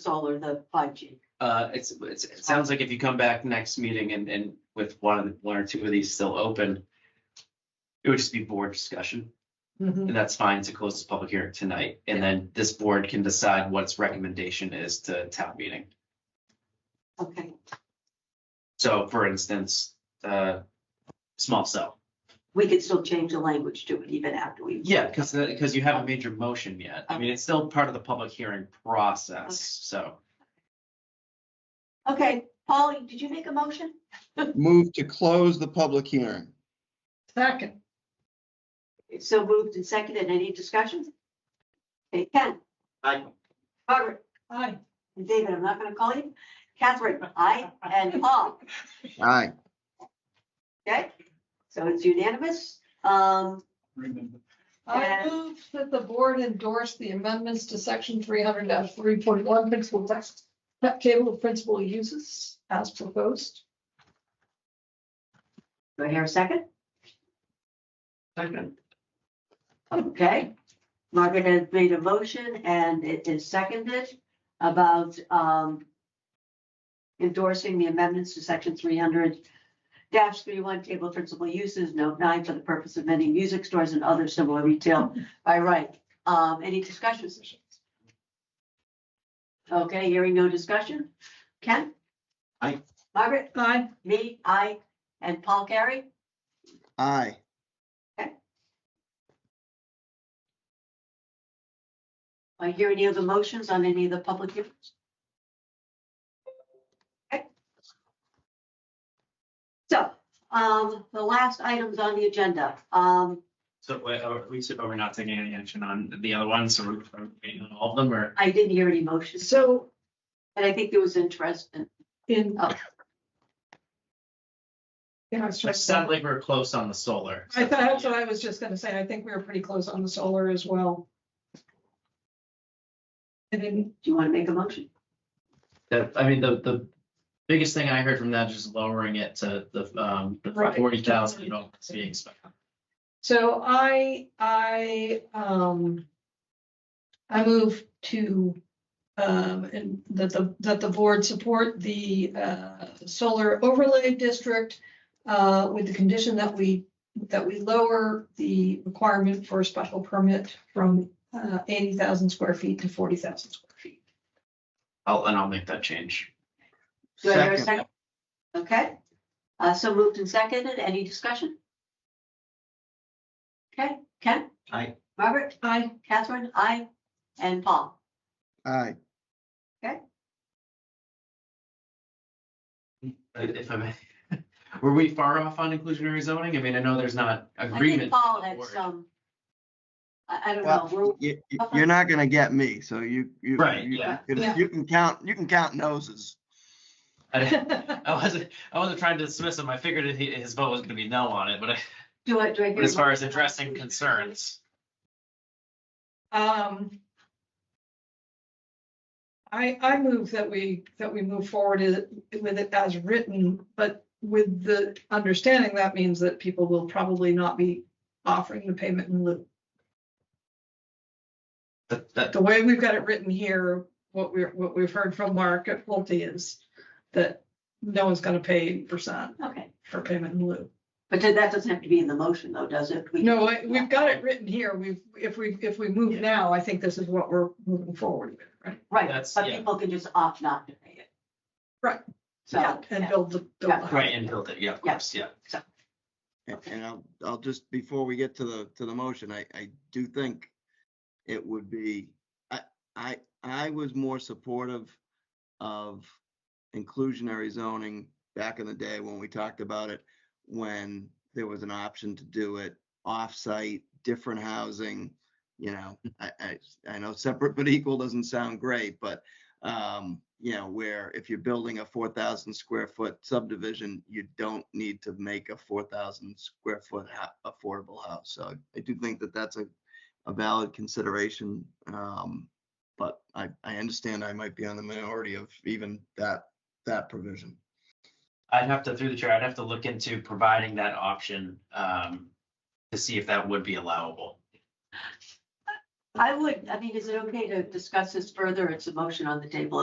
solar, the five G. Uh, it's, it's, it sounds like if you come back next meeting and, and with one of the, one or two of these still open, it would just be board discussion, and that's fine to close this public hearing tonight, and then this board can decide what its recommendation is to town meeting. Okay, So for instance, uh, small cell. we could still change the language to it even after we. Yeah, because, because you haven't made your motion yet. I mean, it's still part of the public hearing process, so. Okay, Polly, did you make a motion? Move to close the public hearing. Second, It's So moved and seconded. Any discussions? Okay, Ken, I, Margaret, aye. and David, I'm not gonna call you. Catherine, I, and Paul. Aye. Okay, so it's unanimous. Um, I And- move that the board endorse the amendments to section three hundred three point one principal text, that table of principal uses as proposed. do I hear a second? Second. Okay, Margaret has made a motion and it is seconded about um endorsing the amendments to section three hundred dash three-one table of principal uses, note nine, for the purpose of many music stores and other similar retail by right. Um, any discussions? Okay, hearing no discussion. Ken? Aye. Margaret, Aye. me, I, and Paul Carey? Aye. Do I hear any other motions on any of the public hearings? Okay. So, um, the last items on the agenda, um, So wait, are we, so are we not taking any action on the other ones, or are we waiting on all of them, or? I didn't hear any motions, So and I think there was interest in, in. Oh. Yeah, I was It trying sounds to. like we're close on the solar. I thought, that's what I was just gonna say. I think we were pretty close on the solar as well. I didn't, do you want to make a motion? That, I mean, the, the biggest thing I heard from that is just lowering it to the, um, the Right. forty thousand developments being expected. so I, I, um. I move to, um, and that the, that the board support the, uh, solar overlay district. Uh, with the condition that we, that we lower the requirement for a special permit from, uh, eighty thousand square feet to forty thousand square feet. I'll, and I'll make that change. Do I hear a Second. second? Okay, uh, so moved and seconded, any discussion? Okay, Ken, I, Margaret, Aye. Catherine, I, and Paul. Aye. if I may, were we far off on inclusionary zoning? I mean, I know there's not I agreement. think Paul on had the word. some, I, I don't know, we're, Well, you, are not gonna get me, so you, you. Right, you- yeah. You can- you can count, you can count noses. I I wasn't, I wasn't trying to dismiss him. I figured that he- his vote was gonna be no on it, but I- do I, do I? hear but a as far as motion on addressing inclusionary? concerns. Um. I, I move that we, that we move forward is- with it as written, but with the understanding that means that people will probably not be offering the payment in lieu. That, that, The way we've got it written here, what we're, what we've heard from Mark at Pulte is that no one's gonna pay percent Okay, for payment in lieu. but then that doesn't have to be in the motion though, does it? We- No, I- we've got it written here. We've, if we, if we move now, I think this is what we're moving forward with, right? Right, That's- but yeah. people can just opt not to pay it. Right. So, And yeah, build the. build the- right, and build it, yeah, of course, yeah. And and I'll, I'll just, before we get to the, to the motion, I, I do think it would be, I, I, I was more supportive of inclusionary zoning back in the day when we talked about it, when there was an option to do it off-site, different housing, you know, I, I, I know separate but equal doesn't sound great, but, um, you know, where if you're building a four thousand square foot subdivision, you don't need to make a four thousand square foot ho- affordable house. So I do think that that's a, a valid consideration. Um, but I, I understand I might be on the minority of even that, that provision. I'd have to, through the chair, I'd have to look into providing that option, um, to see if that would be allowable. I would, I mean, is it okay to discuss this further? It's a motion on the table